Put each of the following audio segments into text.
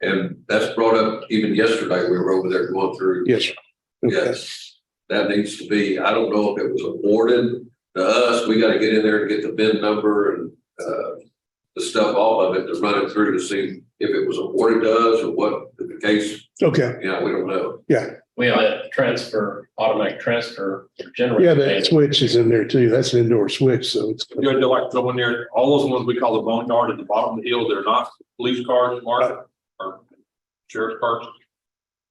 And that's brought up even yesterday, we were over there going through. Yes. sir. Okay. Yes, that needs to be, I don't know if it was awarded to us, we gotta get in there and get the bid number and, uh, the stuff, all of it, to run it through to see if it was awarded to us or what the case, Okay, you know, we don't know. We have a transfer, automatic transfer generator. yeah, that switch is in there too. That's an indoor switch, so it's, You had to like throw in there, all those ones we call the boneyard at the bottom of the hill, they're not police cars, marked or sheriff's cars.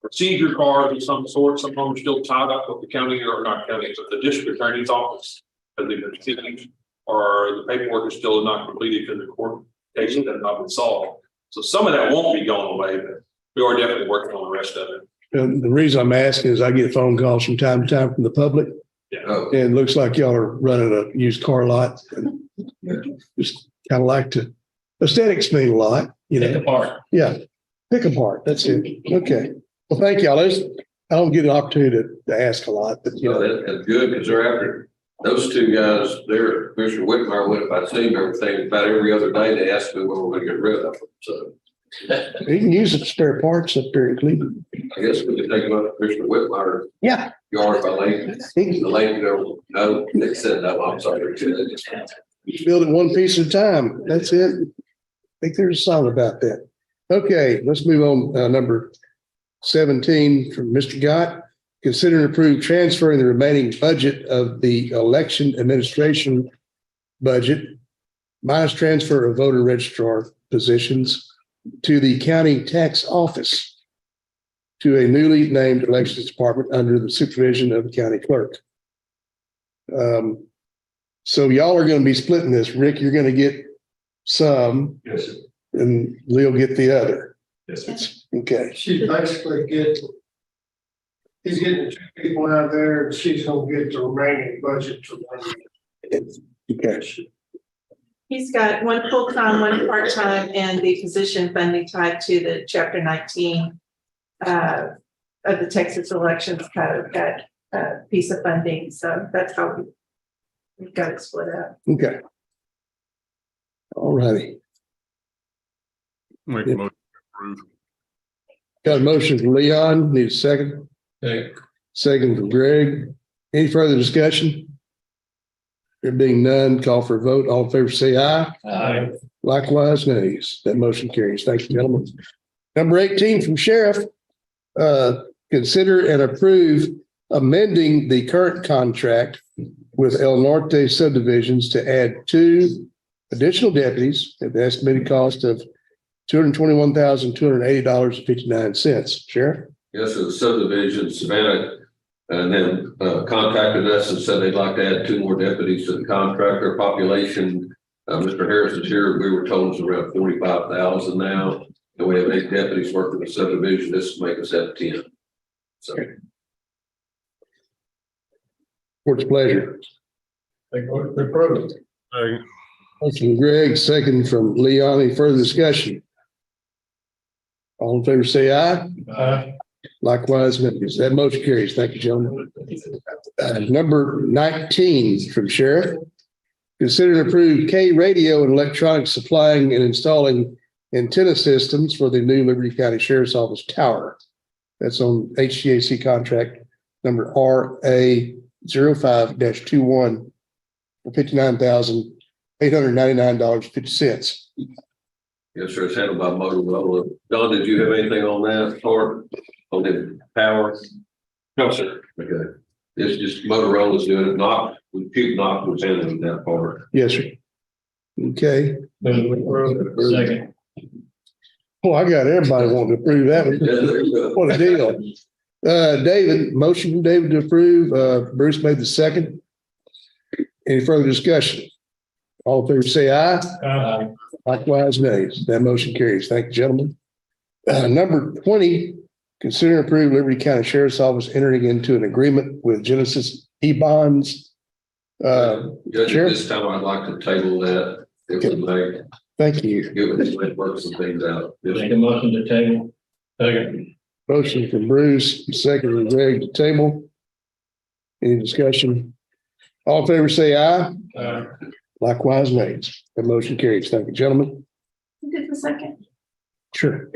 Procedure cars of some sort, some of them are still tied up with the county or not county, but the district attorney's office. As they've been sitting, or the paperwork is still not completed because the court case has not been solved. So some of that won't be going away, but we are definitely working on the rest of it. and the reason I'm asking is I get phone calls from time to time from the public Oh, and it looks like y'all are running a used car lot. And Just kind of like to, aesthetics mean a lot, you Pick know, apart. yeah. Pick apart, that's it. Okay. Well, thank y'all. Those, I don't get an opportunity to, to ask a lot, but you you know, know, that, that's good, because they're after, those two guys, they're, Commissioner Whitmire went, if I'd seen everything, about every other day, they asked me when we're gonna get rid of them, so. you can use it for spare parts up there in Cleveland. I guess we could take about Commissioner Whitmire Yeah. yard by lake, He the can lake, no, no, they said no, I'm sorry. build it one piece at a time. That's it. I think there's a song about that. Okay, let's move on. Uh, number seventeen from Mr. Gott. Consider and approve transferring the remaining budget of the election administration budget minus transfer of voter registrar positions to the county tax office to a newly named elections department under the supervision of the county clerk. Um, so y'all are gonna be splitting this. Rick, you're gonna get some Yes, and Lee will get the other. yes. Okay, She basically get, he's getting two people out there, and she's gonna get the remaining budget to run. okay. He's got one full-time, one part-time, and the position funding tied to the chapter nineteen uh, of the Texas Elections Code, that uh, piece of funding, so that's how we we've got it split up. Okay. All righty. Make a motion approved. Got a motion from Leon, need a second, second from Greg. Any further discussion? There being none, call for a vote. All in favor, say aye. Uh, Likewise, nays. That motion carries. Thank you, gentlemen. Number eighteen from Sheriff. Uh, consider and approve amending the current contract with El Norte subdivisions to add two additional deputies at the estimated cost of two hundred twenty-one thousand, two hundred eighty dollars and fifty-nine cents. Sheriff? Yes, the subdivision Savannah, and then uh, contacted us and said they'd like to add two more deputies to the contractor population. Uh, Mr. Harris is here, we were told it's around forty-five thousand now, and we have eight deputies working the subdivision, this will make us at ten. So, Court's pleasure. Motion from Greg, second from Leon. Any further discussion? All in favor, say aye. Likewise, members. That motion carries. Thank you, gentlemen. Uh, number nineteen from Sheriff. Consider and approve K radio and electronic supplying and installing antenna systems for the new Liberty County Sheriff's Office tower. That's on HGAC contract number RA 5 21 for fifty-nine thousand, eight hundred ninety-nine dollars, fifty cents. yes, sir, it's handled by Motorola. Don, did you have anything on that, or on the power? No, sir. Okay, it's just Motorola's doing it, not, Puke Knox was handling that part. Yes, sir. Okay. Second. Well, Oh, I got everybody wanting to approve that one. What a deal. Uh, David, motion from David to approve. Uh, Bruce made the second. Any further discussion? All in favor, say aye. Uh, Likewise, nays. That motion carries. Thank you, gentlemen. Uh, number twenty, consider and approve Liberty County Sheriff's Office entering into an agreement with Genesis E-Bonds. Uh, Judge, Sure. at this time, I'd like to table that, if we may, thank you. give it, let work some things out. Make a motion to table. Second. Motion from Bruce, second from Greg to table. Any discussion? All in favor, say aye. Uh, Likewise, nays. That motion carries. Thank you, gentlemen. Who did the second? Sure.